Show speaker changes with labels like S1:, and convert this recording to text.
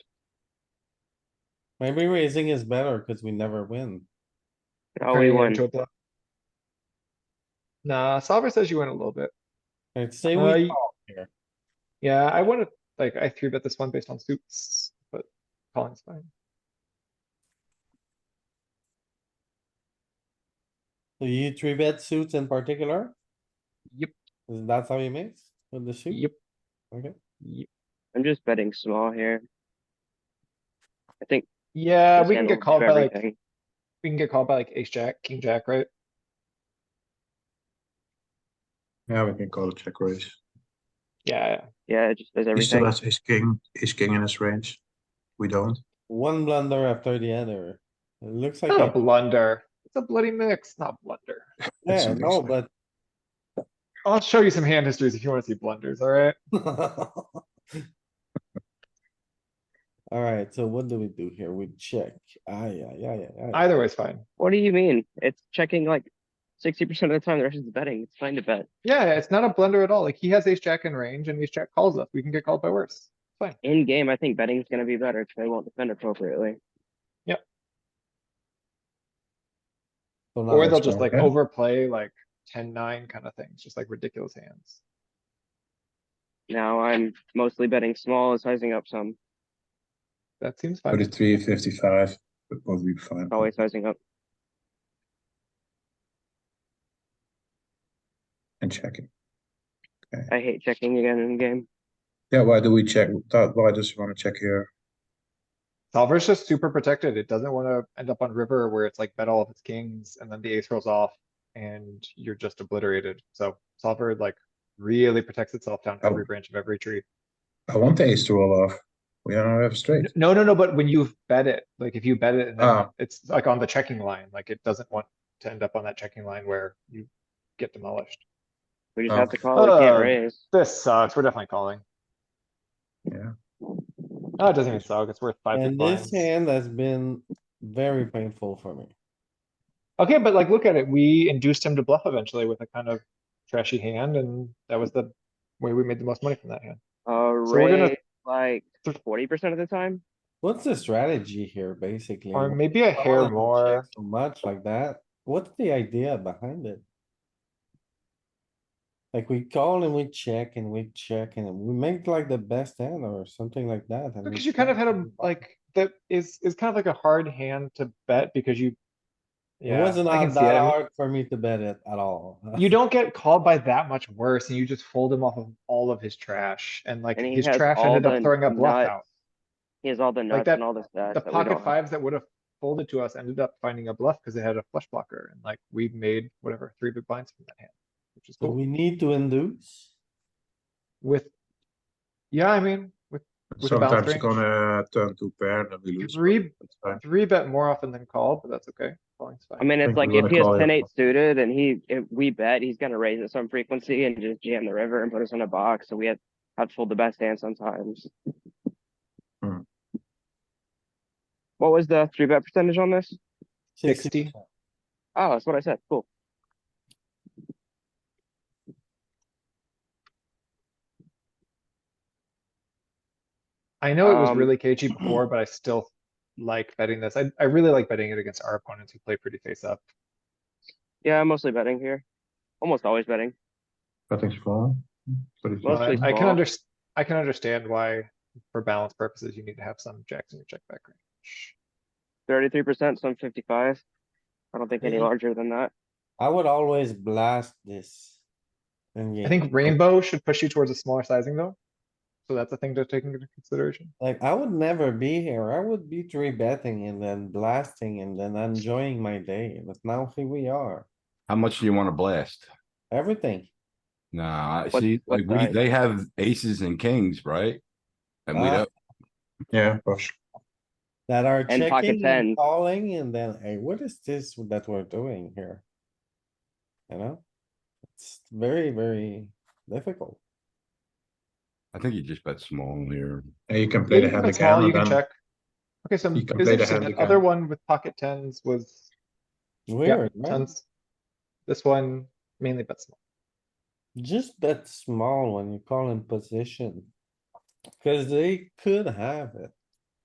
S1: Maybe raising is better because we never win.
S2: Oh,
S3: turning
S2: we
S3: it
S2: won.
S3: into a bluff. Nah, solver says you win a little bit.
S1: I'd say
S3: Uh,
S1: we,
S3: you-
S1: call here.
S3: Yeah, I wanna, like, I three bet this one based on suits, but calling's fine.
S1: Do you three bet suits in particular?
S3: Yep.
S1: Is that how you mix with the suit?
S3: Yep,
S1: Okay,
S3: yep.
S2: I'm just betting small here. I think.
S3: Yeah,
S2: this
S3: Uh, we can
S2: hand
S3: get
S2: will
S3: called
S2: do
S3: by like,
S2: everything.
S3: we can get called by like ace jack, king jack, right?
S4: Yeah, we can call it check raise.
S3: Yeah, yeah.
S2: Yeah, it just does
S4: He still
S2: everything.
S4: has his king, his king in his range. We don't.
S1: one blunder after the other. It looks like,
S3: not a
S1: a-
S3: blunder. It's a bloody mix, not blunder.
S4: It's
S1: yeah,
S4: a
S1: no,
S4: mix.
S1: but.
S3: I'll show you some hand histories if you wanna see blunders, alright?
S1: Alright, so what do we do here? We check. Ah, yeah, yeah, yeah, yeah.
S3: Either way's fine.
S2: What do you mean? It's checking like sixty percent of the time, the rest is betting. It's fine to bet.
S3: Yeah, yeah, it's not a blunder at all. Like, he has ace jack in range and ace jack calls us. We can get called by worse. Fine.
S2: In game, I think betting's gonna be better if they won't defend appropriately.
S1: So now
S3: Or
S1: it's
S3: they'll just like
S4: okay.
S3: overplay like ten nine kind of things, just like ridiculous hands.
S2: Now I'm mostly betting small and sizing up some,
S3: That seems fine.
S4: Thirty-three, fifty-five, but both be fine.
S2: always sizing up.
S4: And checking.
S2: I hate checking again in game.
S4: Yeah, why do we check? That, why does he wanna check here?
S3: Solver's just super protected. It doesn't wanna end up on river where it's like bet all of its kings and then the ace rolls off and you're just obliterated. So solver like really protects itself down
S4: Oh.
S3: every branch of every tree.
S4: I want the ace to roll off. We don't have a straight.
S3: No, no, no, but when you bet it, like if you bet it and then
S4: Ah.
S3: it's like on the checking line, like it doesn't want to end up on that checking line where you get demolished.
S2: We just
S4: Oh.
S2: have to call. We can't
S3: Oh.
S2: raise.
S3: This sucks. We're definitely calling.
S4: Yeah.
S3: Oh, it doesn't even suck. It's worth five big
S1: And this
S3: blinds.
S1: hand has been very painful for me.
S3: Okay, but like, look at it. We induced him to bluff eventually with a kind of trashy hand, and that was the way we made the most money from that hand.
S2: Uh,
S3: we're gonna-
S2: raise like forty percent of the time.
S1: What's the strategy here, basically?
S3: Or maybe a
S1: Why
S3: hair
S1: would we
S3: more.
S1: check So much like that. What's the idea behind it? Like we call and we check and we check and we make like the best hand or something like that. and we
S3: Because you kind of had a,
S1: check.
S3: like, that is, is kind of like a hard hand to bet because you.
S1: It
S3: Yeah,
S1: wasn't
S3: I
S1: that
S3: can see it. I mean,
S1: hard for me to bet it at all.
S3: You don't get called by that much worse, and you just fold him off of all of his trash, and like,
S2: And he
S3: his
S2: has
S3: trash
S2: all
S3: ended
S2: the
S3: up throwing a bluff
S2: nuts
S3: out.
S2: He has all the nuts
S3: that-
S2: and all the stats.
S3: The
S2: that we don't
S3: pocket
S2: have.
S3: fives that would have folded to us ended up finding a bluff because it had a flush blocker, and like, we made whatever, three big blinds from that hand. Which is
S1: So
S3: cool.
S1: we need to induce.
S3: With, yeah, I mean, with With a
S4: Sometimes
S3: balanced
S4: you're
S3: range.
S4: gonna turn two pair and then we lose.
S3: three,
S4: That's fine.
S3: three bet more often than call, but that's okay. Calling's
S2: I
S3: fine.
S2: mean, it's
S4: think
S2: like
S4: we
S2: if
S4: wanna
S2: he has
S4: call it.
S2: ten eight suited and he, if we bet, he's gonna raise at some frequency and just jam the river and put us in a box, so we have, have to fold the best hand sometimes.
S4: Hmm.
S2: What was the three bet percentage on this?
S3: 60.
S1: 60%.
S2: Oh, that's what I said, cool.
S3: I know it was
S2: um,
S3: really cagey before, but I still like betting this. I, I really like betting it against our opponents who play pretty face up.
S2: Yeah, I'm mostly betting here. Almost always betting.
S4: Cutting small. 35.
S3: But I
S2: Mostly
S3: I can
S2: small.
S3: under, I can understand why, for balance purposes, you need to have some jacks in your check back range.
S2: Thirty-three percent, some fifty-five. I don't think any
S1: Mhm.
S2: larger than that.
S1: I would always blast this.
S3: I think rainbow should push you towards a smaller sizing though. So that's a thing to take into consideration.
S1: Like, I would never be here. I would be three betting and then blasting and then enjoying my day, but now here we are.
S5: How much do you wanna blast?
S1: Everything.
S5: Nah, I
S2: What-
S5: see,
S2: what
S5: like, we,
S2: size?
S5: they have aces and kings, right? And we
S2: Uh,
S1: Ah.
S5: don't,
S4: Yeah, push.
S1: That are
S2: And pocket
S1: checking and
S2: tens.
S1: calling and then, hey, what is this that we're doing here? You know? It's very, very difficult.
S5: I think you just bet small here.
S4: And you can
S3: Yeah,
S4: play the
S3: you can
S4: hand
S3: bet small,
S4: again
S3: you
S4: and
S3: can
S4: then
S3: check. Okay, so
S4: you can
S3: it's
S4: play the
S3: interesting.
S4: hand
S3: That
S4: again.
S3: other one with pocket tens was Yeah,
S1: Weird, right?
S3: tons. This one mainly bet small.
S1: Just bet small when you call in position. Cause they could have it.